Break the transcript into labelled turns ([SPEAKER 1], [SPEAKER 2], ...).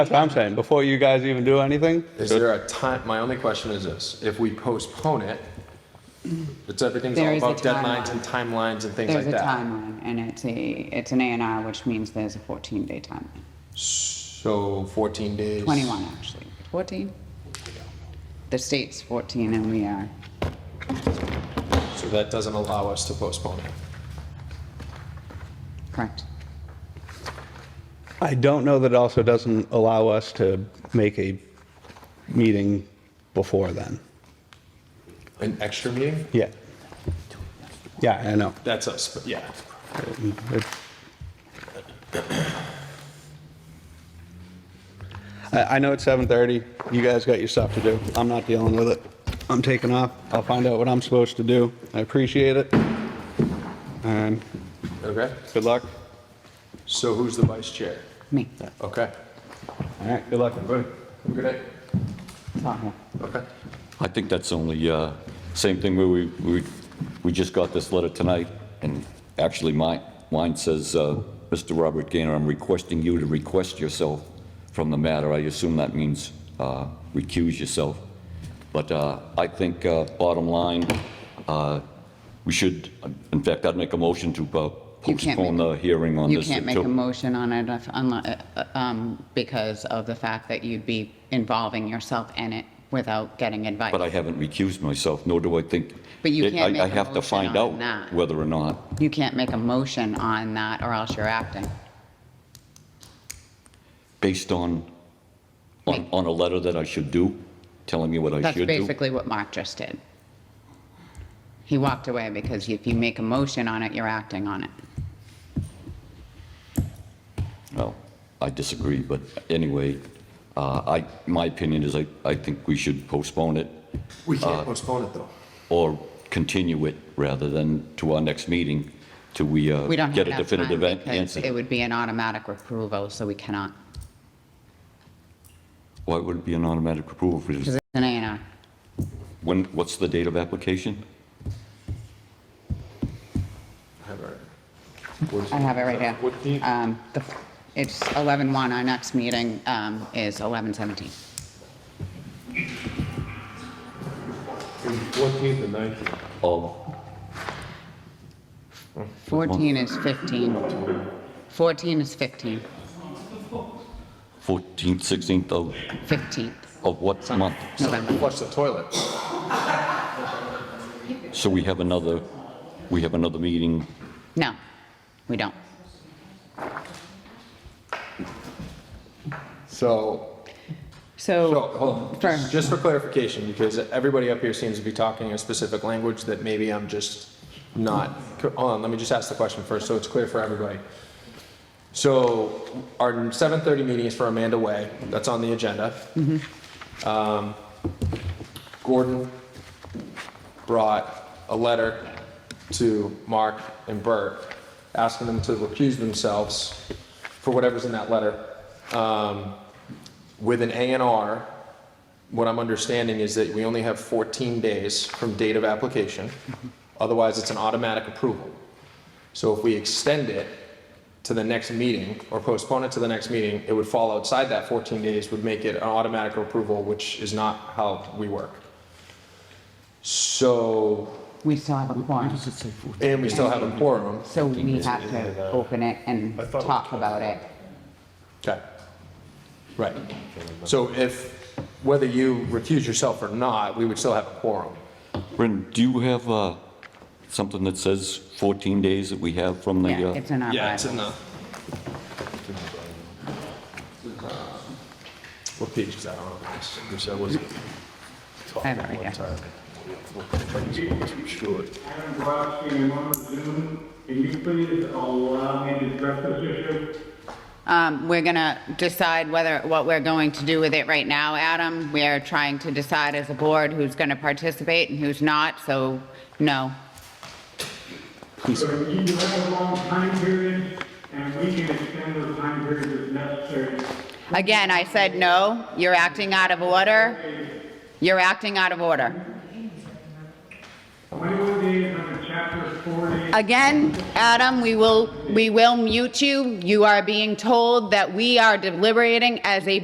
[SPEAKER 1] That's what I'm saying, before you guys even do anything.
[SPEAKER 2] Is there a time, my only question is this, if we postpone it, it's everything's
[SPEAKER 3] There
[SPEAKER 2] all
[SPEAKER 3] is a
[SPEAKER 2] about deadlines
[SPEAKER 3] timeline.
[SPEAKER 2] and timelines and things like
[SPEAKER 3] There's a
[SPEAKER 2] that.
[SPEAKER 3] timeline, and it's a, it's an A and R, which means there's a 14-day timeline.
[SPEAKER 2] So 14 days.
[SPEAKER 3] 21, actually. 14? The state's 14, and we are.
[SPEAKER 2] So that doesn't allow us to postpone it.
[SPEAKER 3] Correct.
[SPEAKER 1] I don't know that it also doesn't allow us to make a meeting before then.
[SPEAKER 2] An extra meeting?
[SPEAKER 1] Yeah. Yeah, I know.
[SPEAKER 2] That's us, but yeah.
[SPEAKER 1] It- I, I know it's 7:30. You guys got your stuff to do. I'm not dealing with it. I'm taking off. I'll find out what I'm supposed to do. I appreciate it. And
[SPEAKER 2] Okay,
[SPEAKER 1] good luck.
[SPEAKER 2] so who's the vice chair?
[SPEAKER 3] Me.
[SPEAKER 2] Okay.
[SPEAKER 1] All right, good luck, everybody.
[SPEAKER 2] Good night.
[SPEAKER 3] It's all here.
[SPEAKER 2] Okay.
[SPEAKER 4] I think that's only, uh, same thing where we, we, we just got this letter tonight, and actually mine, mine says, uh, Mr. Robert Gaynor, I'm requesting you to request yourself from the matter. I assume that means, uh, recuse yourself. But, uh, I think, uh, bottom line, uh, we should, in fact, I'd make a motion to uh,
[SPEAKER 3] You can't
[SPEAKER 4] postpone
[SPEAKER 3] make-
[SPEAKER 4] the hearing on
[SPEAKER 3] You
[SPEAKER 4] this.
[SPEAKER 3] can't make
[SPEAKER 4] until-
[SPEAKER 3] a motion on it if- unli- uh, um, because of the fact that you'd be involving yourself in it without getting advice.
[SPEAKER 4] But I haven't recused myself, nor do I think.
[SPEAKER 3] But you
[SPEAKER 4] I-
[SPEAKER 3] can't
[SPEAKER 4] I-
[SPEAKER 3] make a
[SPEAKER 4] I have to
[SPEAKER 3] motion
[SPEAKER 4] find
[SPEAKER 3] on
[SPEAKER 4] out
[SPEAKER 3] that.
[SPEAKER 4] whether or not.
[SPEAKER 3] You can't make a motion on that, or else you're acting.
[SPEAKER 4] based on, on,
[SPEAKER 3] Me.
[SPEAKER 4] on a letter that I should do, telling me what I
[SPEAKER 3] That's
[SPEAKER 4] should do?
[SPEAKER 3] basically what Mark just did. He walked away because if you make a motion on it, you're acting on it.
[SPEAKER 4] Well, I disagree, but anyway, uh, I, my opinion is I, I think we should postpone it
[SPEAKER 2] We can't postpone it, though.
[SPEAKER 4] or continue it rather than to our next meeting till we uh,
[SPEAKER 3] We don't have
[SPEAKER 4] get a
[SPEAKER 3] enough time
[SPEAKER 4] definitive an-
[SPEAKER 3] because it
[SPEAKER 4] answer.
[SPEAKER 3] would be an automatic approval, so we cannot,
[SPEAKER 4] Why would it be an automatic approval for
[SPEAKER 3] because
[SPEAKER 4] this?
[SPEAKER 3] it's an A and R.
[SPEAKER 4] When, what's the date of application?
[SPEAKER 2] Have it. What is
[SPEAKER 3] I
[SPEAKER 2] it?
[SPEAKER 3] have it right here.
[SPEAKER 2] What the-
[SPEAKER 3] Um, the- It's 11/1, our next meeting um, is 11/17.
[SPEAKER 2] Fourteenth and nineteenth.
[SPEAKER 4] Of,
[SPEAKER 3] 14 is 15. 14 is 15,
[SPEAKER 4] 14th, 16th of,
[SPEAKER 3] 15th
[SPEAKER 4] of what month?
[SPEAKER 3] November.
[SPEAKER 2] Flush the toilet.
[SPEAKER 4] So we have another, we have another meeting
[SPEAKER 3] No, we don't.
[SPEAKER 2] So, so, hold on.
[SPEAKER 3] Fair.
[SPEAKER 2] Just- Just for clarification, because everybody up here seems to be talking a specific language that maybe I'm just not, hold on, let me just ask the question first, so it's clear for everybody. So, our seven-thirty meeting is for Amanda Way, that's on the agenda. Um, Gordon brought a letter to Mark and Bert, asking them to recuse themselves for whatever's in that letter. Um, With an A and R, what I'm understanding is that we only have 14 days from date of application. Otherwise, it's an automatic approval. So if we extend it to the next meeting or postpone it to the next meeting, it would fall outside that 14 days, would make it an automatic approval, which is not how we work. So,
[SPEAKER 3] We still have a quorum,
[SPEAKER 2] and we still have a quorum.
[SPEAKER 3] so we have to open it and talk about it.
[SPEAKER 2] Okay. Right. So if, whether you recuse yourself or not, we would still have a quorum.
[SPEAKER 4] Brendan, do you have uh, something that says 14 days that we have from the,
[SPEAKER 3] Yeah,
[SPEAKER 4] uh,
[SPEAKER 3] it's in our bylaws.
[SPEAKER 2] the. What page is that on?
[SPEAKER 3] I have it right here.
[SPEAKER 5] Adam Brodsky, I'm on Zoom. Can you please uh, allow me to address this issue?
[SPEAKER 3] Um, We're going to decide whether, what we're going to do with it right now, Adam. We are trying to decide as a board who's going to participate and who's not, so no.
[SPEAKER 5] So you have a long time period, and we can extend those time periods if necessary.
[SPEAKER 3] Again, I said no, you're acting out of order. You're acting out of order.
[SPEAKER 5] Twenty-one days under uh, chapter forty.
[SPEAKER 3] Again, Adam, we will, we will mute you. You are being told that we are deliberating as a